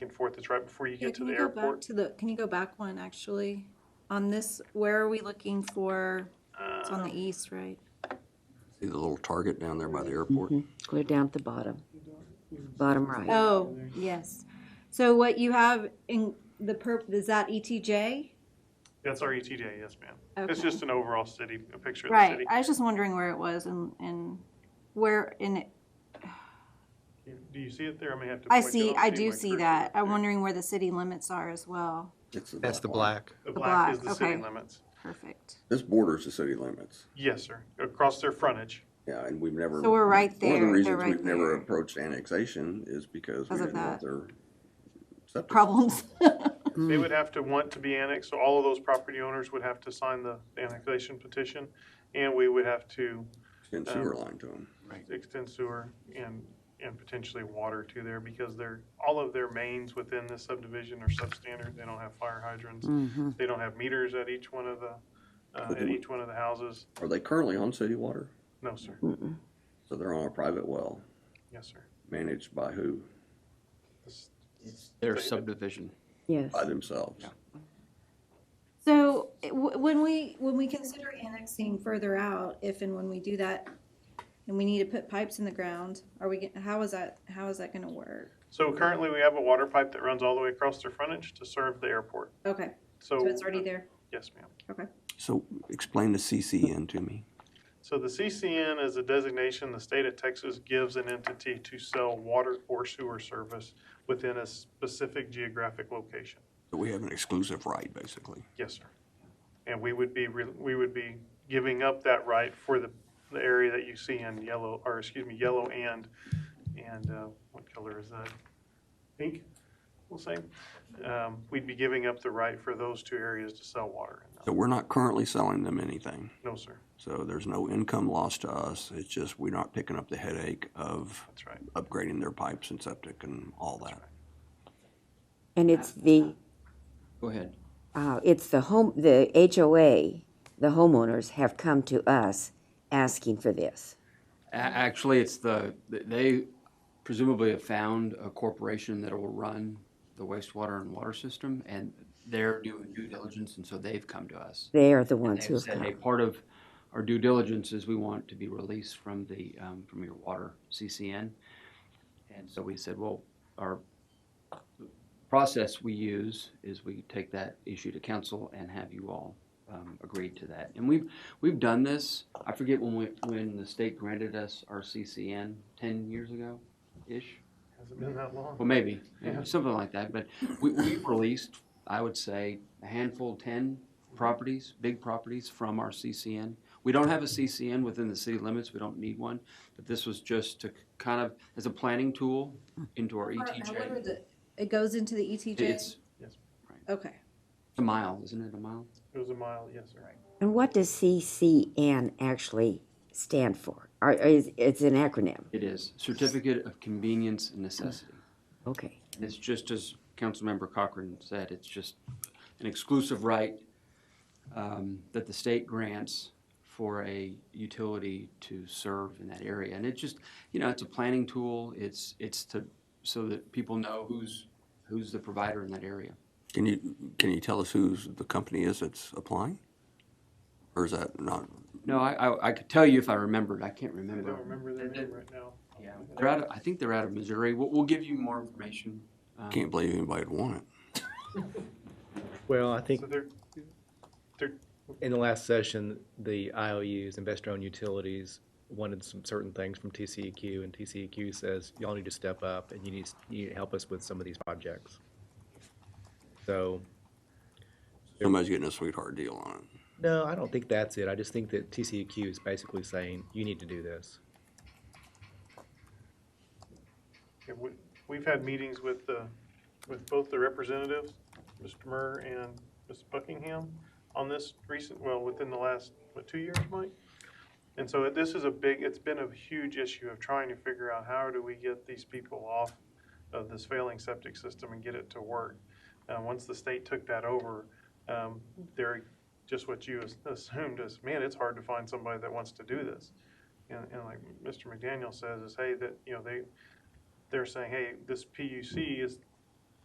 and forth. It's right before you Yeah, get to can the you go back airport. to the, can you go back one, actually? On this, where are we looking for, it's Uh, on the east, right? See the little target down there by the airport? Clear down at the bottom, bottom right. Oh, yes. So what you have in the perp, is that E ETJ? That's our ETJ, yes, ma'am. It's Okay. just an overall city, a picture of the Right, city. I was just wondering where it was and, and where in, it- Do you see it there? I may have to. I point it see, up I to you. do My see cursor that. up I'm there. wondering where the city limits are as well. That's the black. The black is black, the city okay. limits. Perfect. This borders the city limits. Yes, sir. Across their frontage. Yeah, and we've never. So we're right One of there. the They're reasons right we've never there. approached annexation is because we Because of didn't want that. their. septic. Problems. They would have to want to be annexed, so all of those property owners would have to sign the annexation petition, and we would have to And sewer line to them. extend sewer and, and potentially water to there, because they're, all of their mains within this subdivision are substandard, they don't have fire hydrants, they don't have meters at each one of the, uh, at each one of the houses, Are they currently on city water? no, sir, So they're on a private well, yes, sir. managed by who? This- Their David. subdivision. Yes, By themselves. So it- w- when we, when we consider annexing further out, if and when we do that, and we need to put pipes in the ground, are we, get- how is that, how is that gonna work? So currently, we have a water pipe that runs all the way across their frontage to serve the airport, Okay, so. so it's already there, Yes, ma'am. okay. So explain the CCN to me. So the CCN is a designation the state of Texas gives an entity to sell water or sewer service within a specific geographic location. So we have an exclusive right, basically. Yes, sir. And we would be, re- we would be giving up that right for the, the area that you see in yellow, or excuse me, yellow and, and uh, what color is that? Pink, we'll say. Um, We'd be giving up the right for those two areas to sell water. So we're not currently selling them anything. No, sir, So there's no income loss to us. It's just we're not picking up the headache of that's right. upgrading their pipes and septic and all that. and it's the, Go ahead. uh, it's the home, the HOA, the homeowners have come to us asking for this. A- Actually, it's the, they presumably have found a corporation that will run the wastewater and water system, and they're doing due diligence, and so they've come to us. They are the ones who They've have said, hey, come. part of our due diligence is we want to be released from the, um, from your water CCN. And so we said, well, our process we use is we take that issue to council and have you all, um, agreed to that. And we've, we've done this, I forget when we, when the state granted us our CCN ten years ago-ish. Hasn't been that long. Well, maybe, yeah, Yeah. something like that, but we, we've released, I would say, a handful, ten properties, big properties from our CCN. We don't have a CCN within the city limits, we don't need one, but this was just to k- kind of, as a planning tool into our uh, E ETJ. It goes into the ETJ? It's Okay. a mile, isn't it, a mile? It was a mile, yes, sir. And what does CCN actually stand for? Or is, it's an acronym, It is, Certificate of Convenience and Necessity. okay. And It's just as Councilmember Cochran said, it's just an exclusive right um, that the state grants for a utility to serve in that area. And it's just, you know, it's a planning tool. It's, it's to, so that people know who's, who's the provider in that area. Can you, can you tell us who's the company is that's applying? Or is that not, No, I, I, I could tell you if I remembered. I can't I remember. don't remember their name right now. Yeah, they're out, of- I think they're out of Missouri. We'll, we'll give you more information. um, can't believe anybody'd want it. Well, I think So they're, in the last session, the IOUs, investor-owned utilities, wanted some certain things from TCEQ, and TCEQ says, y'all need to step up, and you need, you need to help us with some of these projects. So, Somebody's getting a sweetheart deal on it. no, I don't think that's it. I just think that TCEQ is basically saying, you need to do this. Yeah, we- We've had meetings with the, with both the representatives, Mr. Murr and Ms. Buckingham, on this recent, well, within the last, what, two years, Mike? And so it- this is a big, it's been a huge issue of trying to figure out how do we get these people off of this failing septic system and get it to work. Uh, once the state took that over, um, they're, just what you as- assumed is, man, it's hard to find somebody that wants to do this. And, and like Mr. McDaniel says is, hey, that, you know, they, they're saying, hey, this PUC is